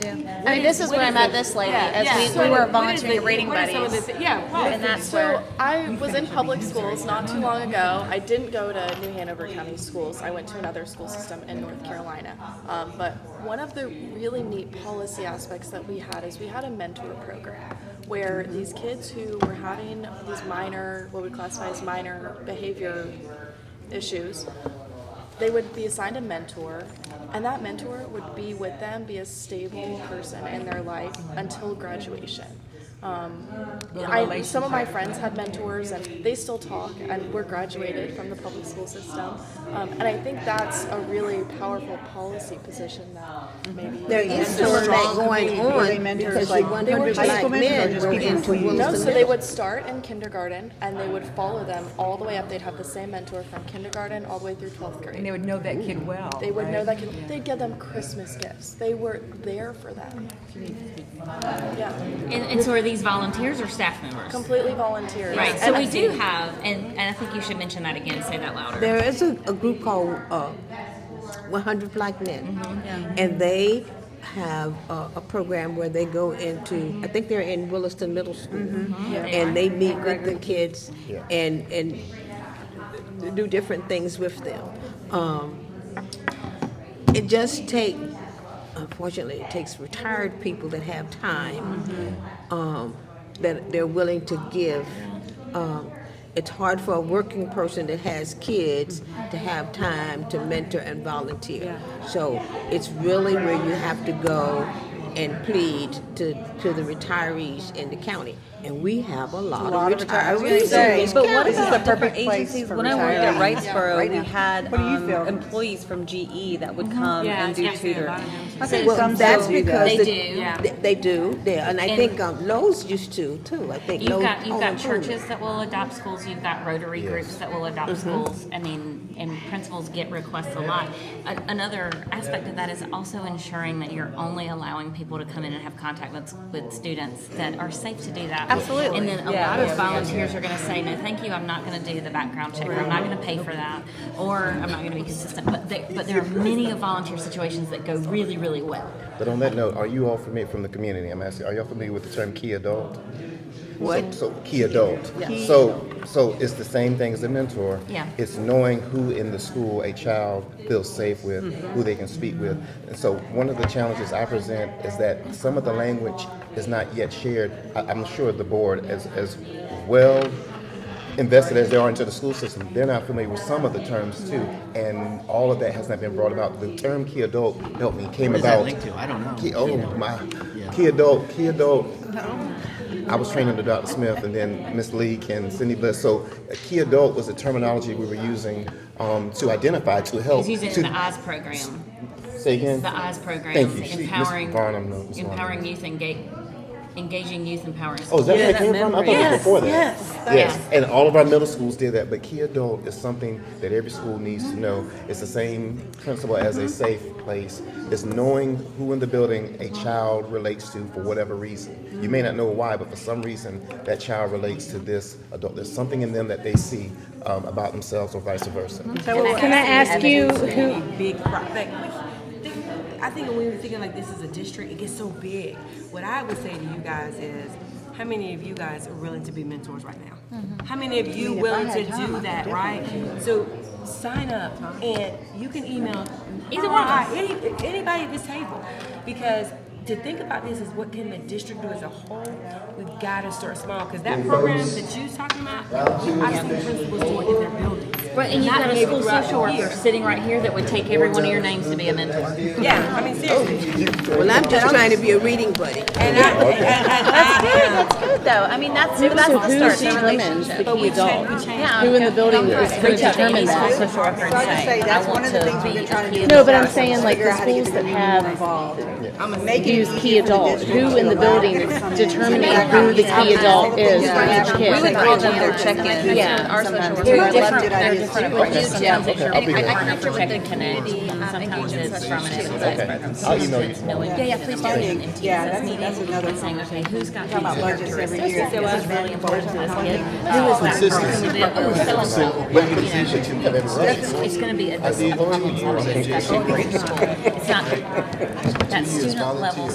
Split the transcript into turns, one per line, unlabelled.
I mean, this is where I met this lady as we, we were volunteering reading buddies.
Yeah,
And that's
So
where,
I was in public schools not too long ago. I didn't go to New Hanover County Schools. I went to another school system in North Carolina. Um, but one of the really neat policy aspects that we had is we had a mentor program where these kids who were having these minor, what we classify as minor behavior issues, they would be assigned a mentor, and that mentor would be with them, be a stable person in their life until graduation. Um, I, some of my friends had mentors, and they still talk, and were graduated from the public school system. Um, and I think that's a really powerful policy position that maybe
Mm-hmm.
There is
mentors-
some of that
strong
going
community, really
on
mentors,
because
like
you wonder
hundred
high school
black men
mentors, just
were
people
into
who use
No,
the
so they would
Mm-hmm.
start in kindergarten, and they would follow them all the way up. They'd have the same mentor from kindergarten all the way through twelfth grade.
And they would know that kid well.
They would know
right?
that could, they'd give them Christmas gifts. They were there for them. Yeah,
And, and so are these volunteers or staff members?
completely volunteers.
Right, so
And
we do have, and, and I think you should mention that again, say that louder.
There is a, a group called uh, 100 Black Men, and they have a, a program where they go into. I think they're in Williston Middle School, and they meet with the kids and and do different things with them. Um, it just take, unfortunately, it takes retired people that have time um, that they're willing to give. Um, it's hard for a working person that has kids to have time to mentor and volunteer. So it's really where you have to go and plead to, to the retirees in the county. And we have a lot, of retirees. in this
But what
county.
is the
perfect
different
place
agencies?
for
When I worked at
retirees.
Riceboro,
Right
we
now.
had
What do you
um,
feel?
employees from GE that would
um,
come
Uh-huh. Yeah,
and do
yeah,
tutoring.
yeah,
I think
Well,
some
that's
still do
because
that.
They
the-
do. Yeah.
th- They do, yeah, and I
And-
think um, Lowe's used to too. I think
You've
Lowe's.
got, you've
oh,
got
I'm sorry.
churches that will adopt schools, you've got Rotary groups that will adopt schools. I mean, and principals get requests a lot. A- Another aspect of that is also ensuring that you're only allowing people to come in and have contact with, with students that are safe to do that. Absolutely. And then a lot of volunteers are gonna say, no, thank you, I'm not gonna do the background check, or I'm not gonna pay for that, or I'm not gonna be consistent. But there, but there are many of volunteer situations that go really, really well.
But on that note, are you all familiar from the community? I'm asking, are y'all familiar with the term key adult?
What?
So key adult. So so it's the same thing as a mentor.
Yeah.
It's knowing who in the school a child feels safe with, who they can speak with. And so one of the challenges I present is that some of the language is not yet shared. I, I'm sure the board as as well invested as they are into the school system, they're not familiar with some of the terms too. And all of that has not been brought about. The term key adult helped me came
What does that
about
link to? I don't know.
Key, oh my
Yeah.
key adult, key adult. I was training under Dr. Smith and then Miss Leak and Cindy Bliss. So a key adult was the terminology we were using um, to identify, to help.
He's using
Oh, to,
the Oz program.
say again.
The eyes program,
Thank you. She- Ms.
empowering,
Barnum, no, Ms. Barnum.
empowering youth, engage, engaging youth, empowering.
Oh, is that
Yeah,
where it
that
came from? I thought it
memory.
was before that.
Yes,
Yes. And all of our middle schools did that, but Key Adult is something that every school needs to know. It's the same principle as a safe place. It's knowing who in the building a child relates to for whatever reason. You may not know why, but for some reason that child relates to this adult. There's something in them that they see um, about themselves or vice versa.
Can I ask you who,
Big pro- like, we- think- I think when we were thinking like this is a district, it gets so big. What I would say to you guys is, how many of you guys are willing to be mentors right now?
Mm-hmm.
How many of you willing to do that, right? So sign up and you can email either one, any, anybody at this table, because to think about this is what can the district do as a whole. We've got to start small because that program that you're talking about, I've seen principals do it in their buildings.
Right, and you've got a school social worker sitting right here that would take every one of your names to be a mentor.
Yeah, I mean seriously.
Well, I'm just trying to be a reading buddy.
And I, and, and
that's
I,
good, that's good though. I mean, that's, that's
so
the
who
start, the
determines the
relationship.
key adult?
Yeah.
Who in the building is
Yeah.
going to determine that?
Social worker and
So I just
say,
say that's
I want
one of the
to
things we've
be
been
a
trying to
key.
No, but
adult.
I'm saying like the schools that have use key adult, who in the building is determining who the key adult is for each
We would
kid.
call them their check-in. Yeah. Our social worker. They're different, they're different approaches.
Sometimes it's your
I'll be
partner
there.
from the community, sometimes it's from an exercise program.
I'll email you tomorrow.
Yeah, yeah, please do. And teams
Yeah,
that's
that's-
meeting
that's another
and saying, okay, who's got these
about budgets every year.
characteristics? This is really important to this kid.
Consistency.
It's gonna be a
I see.
dis- a conversation. It's not, that student level